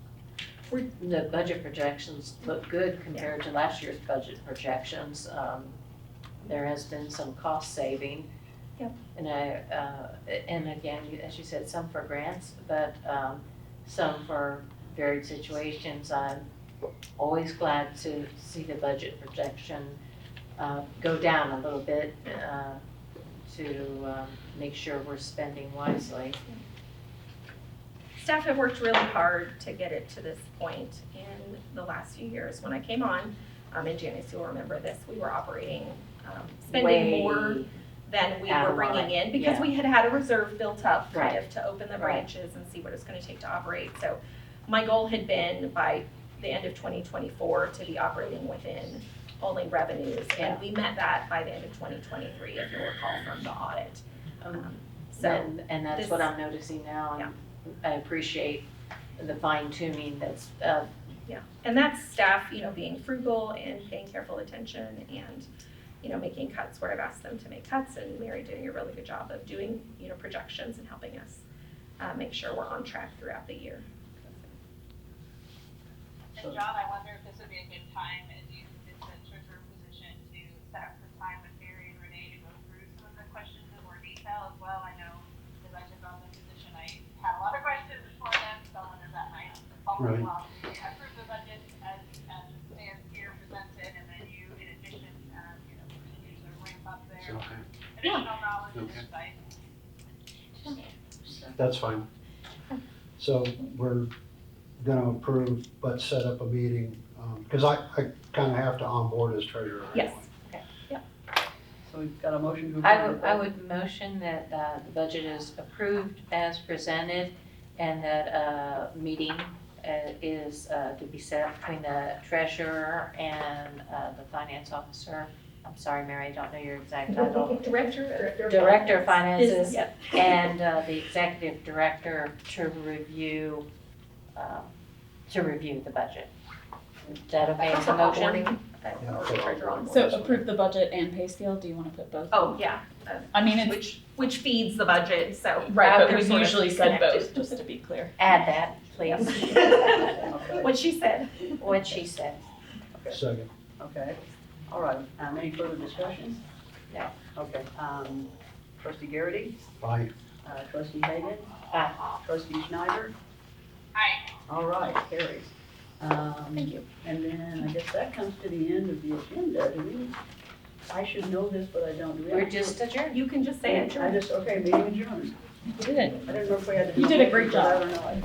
We're- The budget projections look good compared to last year's budget projections. Um, There has been some cost saving. Yep. And I, uh, and again, you- as you said, some for grants, but um, some for varied situations. I'm always glad to see the budget projection uh, go down a little bit uh, to um, make sure we're spending wisely. Staff have worked really hard to get it to this point in the last few years. When I came on, um, and Janice, you'll remember this, we were operating, um, spending Way- more than we out were of line, bringing in because yeah. we had had a reserve built up kind Right. of to open the Right. branches and see what it's gonna take to operate. So my goal had been by the end of twenty twenty-four to be operating within only revenues. Yeah. And we met that by the end of twenty twenty-three, if you'll recall from the audit. Um, Um, So, And, and that's this- what I'm noticing now, and I appreciate the fine tuning that's, uh, And that's staff, you know, being frugal and paying careful attention and, you know, making cuts where I've asked them to make cuts and Mary doing a really good job of doing, you know, projections and helping us uh, make sure we're on track throughout the year. And John, I wonder if this would be a good time, as you convince the treasurer position, to set some time with Mary and Renee to go through some of the questions in more detail as well. I know, as I took on the position, I had a lot of questions for them, so I wonder if that might follow Right. along. We Approve the budget as, as it stands here presented, and then you, in addition, um, you know, continue to ramp up It's their okay. additional knowledge and Okay. insight. That's fine. So we're gonna approve, but set up a meeting, um, cause I, I kinda have to onboard as treasurer. anyway. Yes. So we've got a motion to approve. I would, I would motion that, uh, the budget is approved as presented and that a meeting, uh, is, uh, to be set between the treasurer and, uh, the finance officer. I'm sorry, Mary, I don't know your exact title. Director. Director of Finances Yep. and uh, the executive director to review, um, to review the budget. Is that okay as a motion? Yeah, I'll put all the Motion. So approve the budget and pay scale, do you wanna put both? Oh, yeah, I mean, it's, which, which feeds the budget, so. right, they're but we've sort of usually said both, connected. just to be clear. Add that, please, What she said. what she said. Second. Okay, all right, um, any further discussion? No. Okay, um, trustee Garrity, Aye. uh, trustee Hagan, Aye. trustee Schneider, Hi, all right, carries. Um, Thank you. and then I guess that comes to the end of the agenda, do we? I should know this, but I don't. Do we- We're just adjourned. You can just say I it. just, okay, meeting adjourned. Good. I don't know if we had to. You did a great I don't know.